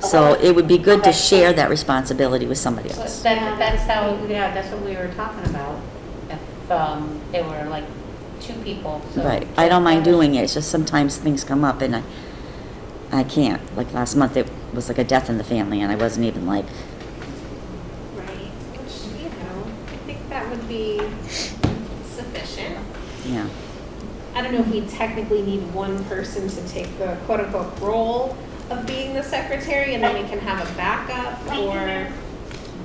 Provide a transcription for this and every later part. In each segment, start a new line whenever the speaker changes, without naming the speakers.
So it would be good to share that responsibility with somebody
But
else.
That, that's how, yeah, that's what we were talking about. If, um, there were like two people, so.
Right, I don't mind doing it, it's just sometimes things come up and I, I can't. Like last month, it was like a death in the family and I wasn't even like,
Right, which, you know, I think that would be sufficient.
you know,
I don't know if we technically need one person to take the quote-unquote role of being the secretary, and then we can have a backup, or,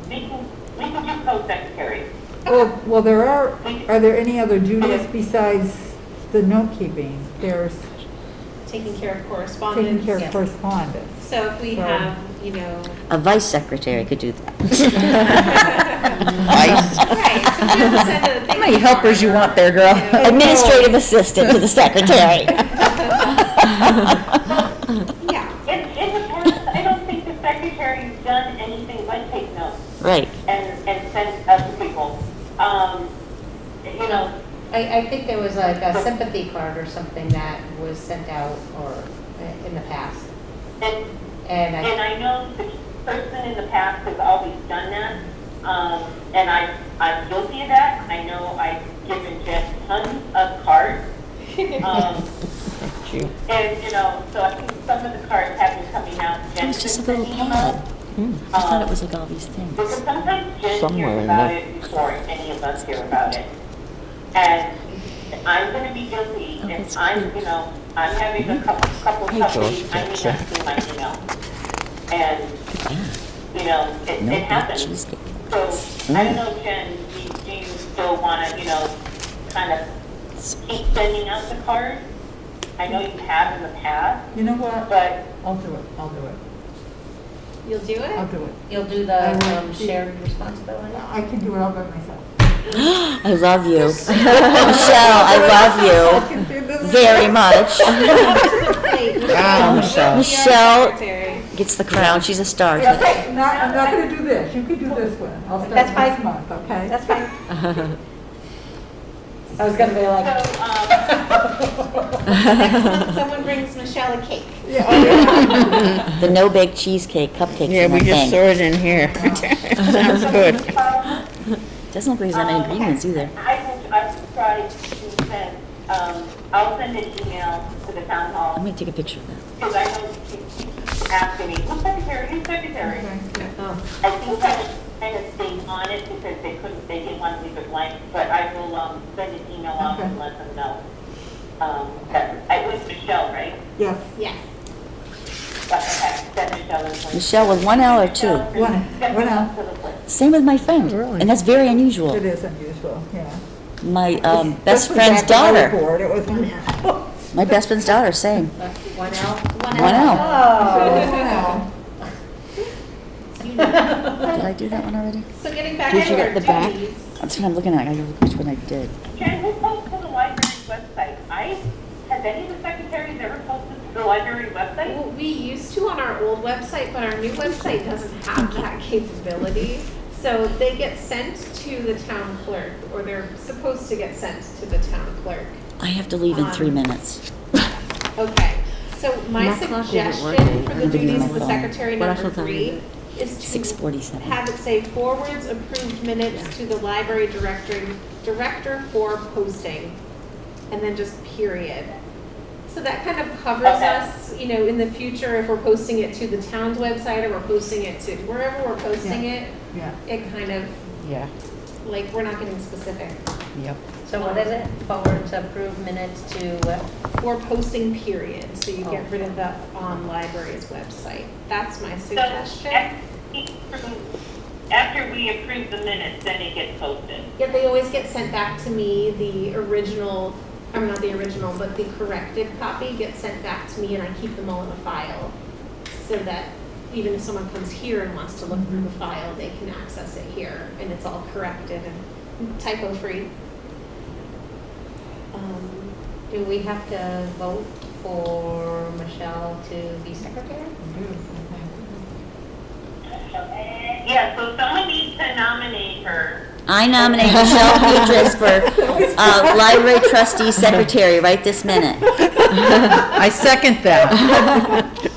We can, we can just go secretary.
Well, Oh, well, there are, are there any other duties besides the note-keeping? There's
taking care of
taking care
correspondence.
of correspondence.
So if we
Sure.
have, you know,
a vice secretary could do that.
right, so if we have to send a thank
How many helpers you want there, girl?
you know,
Administrative assistant to the secretary.
Yeah,
It, it depends, I don't think the secretary's done anything but take notes
Right,
and, and send us to people. Um, you know,
I, I think there was like a sympathy card or something that was sent out or uh, in the past.
and,
And
and
I,
I know the person in the past has always done that. Um, and I, I'm guilty of that. I know I've given Jeff tons of cards. Um, and, you know, so I think some of the cards have been coming out.
it was
Jen's
just a
been
little
sending them
pad.
out.
I thought it was like all these
Because
things.
sometimes Jen
Somewhere
hears
in
about
that-
it before any of us hear about it. And I'm gonna be guilty
Oh,
if
that's
I'm,
cute.
you know, I'm having a couple, couple
Hey, George,
coffees, I may not
that's it.
see my email. And, you know, it,
No
it
bad
happens.
cheesecake.
So, I don't know, Jen, do- do you still wanna, you know, kind of keep sending out the cards? I know you have in the past,
You know what?
but
I'll do it, I'll do it,
you'll do
I'll
it?
do it.
you'll do
I
the
will
um,
do-
shared responsibility?
I can do it all by myself.
I love you. Michelle, I love you very much.
Wow,
Ah, Michelle.
Michelle. Gets the crown, she's a star.
It's okay, not, I'm not gonna do this, you can do this one. I'll start
That's fine.
next month, okay?
That's fine. I was gonna be like,
so, um,
Next month, someone brings Michelle a cake.
The no-bake cheesecake cupcakes
Yeah,
in
we
one
just
thing.
throw it in here. Sounds good.
Doesn't look like there's that many
Um,
ingredients either.
I will, I will try to send, um, I'll send an email to the town
I'm
hall,
gonna take a picture of that.
because I know she keeps asking me, who's secretary, who's secretary?
oh,
I think I was kind of staying on it because they couldn't, they didn't want to leave it blank, but I will, um, send an email out and let them know. Um, that, I was Michelle, right?
Yes,
Yes.
That, that that Michelle is. like-
Michelle with one L or two?
One,
Michelle,
one L.
to the place.
Same with my friend, and that's very unusual.
it is unusual, yeah.
My um, best
Especially
friend's
back when we were
daughter,
bored, It was
my best friend's daughter, same.
one L?
One L.
Oh.
Wow.
Did I do that one already?
So getting back
Did
to
you get
our
the back?
duties.
That's what I'm looking at. I gotta look which one I did.
Jen, who posts to the library's website? I, has any of the secretaries ever posted to the library website?
Well, we used to on our old website, but our new website doesn't have that capability. So they get sent to the town clerk, or they're supposed to get sent to the town clerk.
I have to leave in three
Um,
minutes.
Okay, so
My
my
clock isn't
suggestion
working.
for
I'm gonna
the
be on
duties
my
of the
phone.
secretary
What I
number
shall tell
three
you
is
Six
to
forty-seven.
have it say forwards approved minutes to the library director, director for posting, and then just period. So that kind of covers
Okay.
us, you know, in the future, if we're posting it to the town's website or we're posting it to wherever we're posting it,
Yeah.
it kind of,
Yeah,
like, we're not getting specific.
yep.
So what is it? Forward to approve minutes to what?
For posting period, so you
Oh.
get rid of the on library's website. That's my
So
suggestion.
after we approve- After we approve the minutes, then it gets posted.
Yeah, they always get sent back to me, the original, or not the original, but the corrected copy gets sent back to me and I keep them all in a file. So that even if someone comes here and wants to look through the file, they can access it here and it's all corrected and typo free.
Um, Do we have to vote for Michelle to be secretary?
Yeah, so someone needs to nominate her.
I nominate Michelle Petras for uh, library trustee secretary right this minute.
I second that.